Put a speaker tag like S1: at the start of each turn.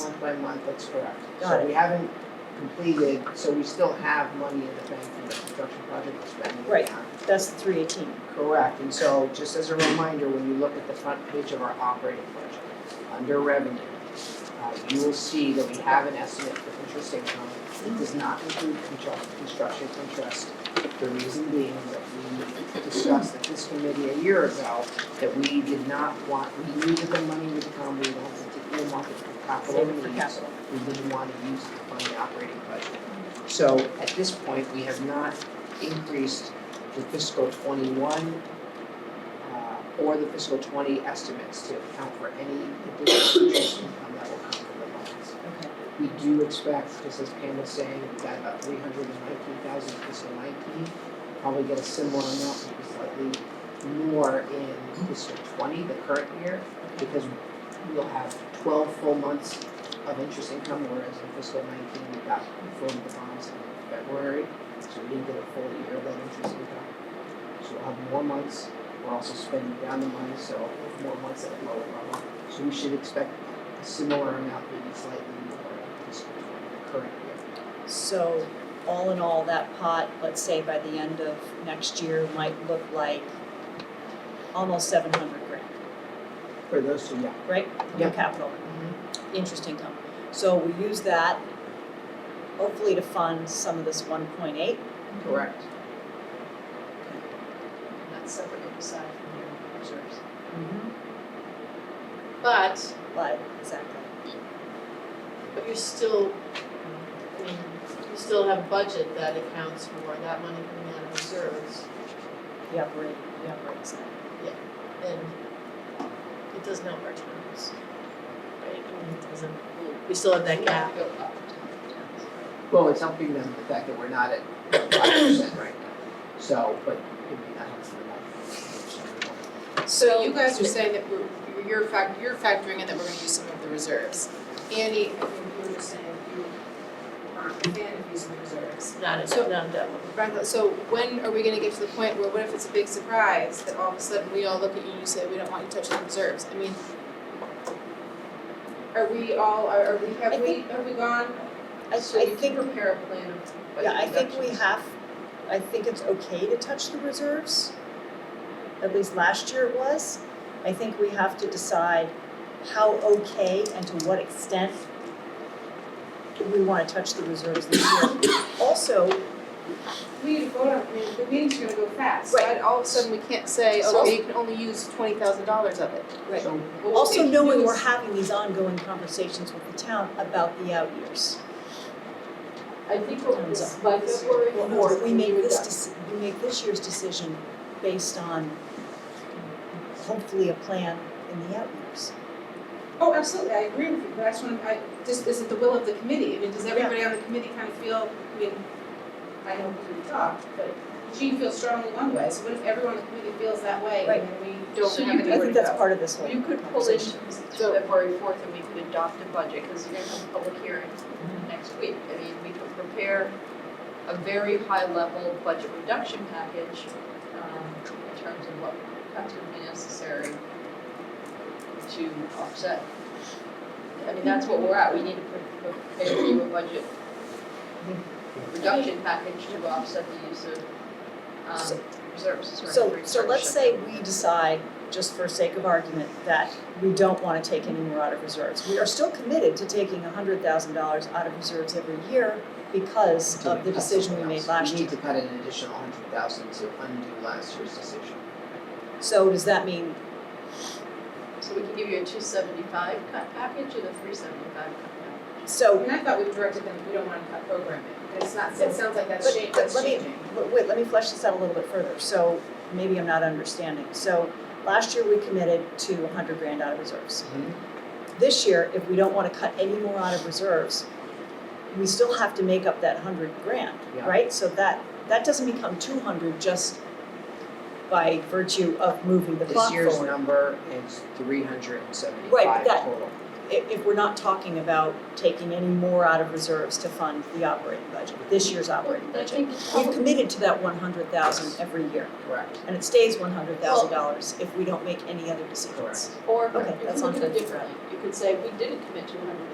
S1: by month, that's correct.
S2: Got
S1: So
S2: it.
S1: we haven't completed, so we still have money in the bank for the construction project we're spending.
S2: Right.
S1: on.
S2: That's the three eighteen.
S1: Correct, and so just as a reminder, when you look at the front page of our operating budget, under revenue, uh, you will see that we have an estimate for interest income. It does not include constru- construction interest. The reason being that we discussed at this committee a year ago, that we did not want, we knew that the money would come, we wanted to earmark it for capital
S2: Save it for
S1: needs. We didn't want to use it to fund the operating budget. So at this point, we have not increased the fiscal twenty-one uh, or the fiscal twenty estimates to account for any additional interest income that will come from the bonds.
S2: Okay.
S1: We do expect, just as Pam was saying, we've got about three hundred and nineteen thousand fiscal nineteen. Probably get a similar amount, maybe slightly more in fiscal twenty, the current year, because we'll have twelve full months of interest income, whereas in fiscal nineteen, we got from the bonds in February, so we didn't get a full year of that interest income. So we'll have more months, we're also spending down the money, so we'll have more months at a lower level. So we should expect a similar amount, maybe slightly more in fiscal twenty, the current year.
S2: So all in all, that pot, let's say by the end of next year, might look like almost seven hundred grand,
S1: For those two, yeah.
S2: right?
S1: Yeah.
S2: Your capital, interest income. So we use that hopefully to fund some of this one point eight.
S1: Correct.
S3: That's separate aside from your reserves. But,
S2: But, exactly.
S3: but you're still, I mean, you still have budget that accounts for that money coming out of reserves.
S2: The operating, the operating side.
S3: And it doesn't help our towns, right? I mean, it doesn't, we still have that gap. Go up
S1: Well, it's helping them, the fact that we're not at five percent right now, so, but it may not help them enough.
S4: So you guys are saying that we're, you're fact, you're factoring in that we're gonna use some of the reserves. Andy, I think you were just saying you aren't a fan of using the reserves.
S3: Not a,
S4: So-
S3: not a double.
S4: Right, so when are we gonna get to the point where what if it's a big surprise that all of a sudden we all look at you and you say, we don't want you touching the reserves? I mean, are we all, are, are we,
S2: I
S4: have we,
S2: think-
S4: have we gone?
S2: I, I
S3: So you
S2: think
S3: can prepare a plan of budget
S2: Yeah, I think we
S3: reductions.
S2: have, I think it's okay to touch the reserves. At least last year it was. I think we have to decide how okay and to what extent do we wanna touch the reserves this year. Also,
S4: We need to vote on, I mean, the meeting's gonna go fast,
S2: Right.
S4: right? All of a sudden, we can't say,
S2: So-
S4: oh, you can only use twenty thousand dollars of it.
S2: Right.
S1: So
S4: Well, what we
S2: also
S4: can
S2: knowing
S4: do
S2: we're
S4: is-
S2: having these ongoing conversations with the town about the out years.
S3: I think what
S2: Thumbs
S3: was, by February
S2: Well,
S3: fourth,
S2: We make
S3: would
S2: this,
S3: have-
S2: deci- we make this year's decision based on hopefully a plan in the out years.
S4: Oh, absolutely, I agree with you, but I just want, I, just, is it the will of the committee? I mean, does everybody on the committee kind of feel, I mean, I know we talked, but Jean feels strongly one way, so what if everyone on the committee feels that way
S2: Right.
S4: and then we don't
S3: So
S4: have
S3: you
S4: anywhere
S2: I
S4: to go?
S3: could-
S2: think that's part of this whole
S3: You could pull in
S2: conversation.
S3: through February fourth and we could adopt a budget, because you're gonna have a public hearing next week. I mean, we could prepare a very high-level budget reduction package, um, in terms of what cuts would be necessary to offset. I mean, that's what we're at, we need to pre- prepare you a budget reduction package to offset the use of,
S2: So-
S3: um, reserves. Sorry,
S2: So,
S3: research.
S2: so let's say we decide, just for sake of argument, that we don't wanna take any more out of reserves. We are still committed to taking hundred thousand dollars out of reserves every year because of the decision we made last
S1: We
S2: year.
S1: need to cut an additional hundred thousand to undo last year's decision.
S2: So does that mean,
S3: So we can give you a two seventy-five cut package and a three seventy-five cut package.
S4: I
S2: so,
S4: mean, I thought we directed them, we don't want to cut programming, and it's not, it sounds like that's
S2: But-
S4: changing,
S2: but
S4: that's
S2: let me-
S4: changing.
S2: wait, wait, let me flesh this out a little bit further. So maybe I'm not understanding. So last year we committed to hundred grand out of reserves. This year, if we don't wanna cut any more out of reserves, we still have to make up that hundred grand,
S1: Yeah.
S2: right? So that, that doesn't become two hundred just by virtue of moving the
S1: This
S2: clock
S1: year's
S2: forward.
S1: number is three hundred and
S2: Right,
S1: seventy-five
S2: but that-
S1: total.
S2: If, if we're not talking about taking any more out of reserves to fund the operating budget, this year's operating
S3: I
S2: budget.
S3: think it's
S2: We've
S3: probably,
S2: committed to that one hundred thousand every year,
S1: Correct,
S2: and it stays one hundred thousand dollars if we don't make any other decisions.
S1: correct.
S3: or
S2: Okay,
S3: you
S2: that's
S3: can look
S2: on
S3: at it
S2: Thursday.
S3: differently. You could say, we didn't commit to a hundred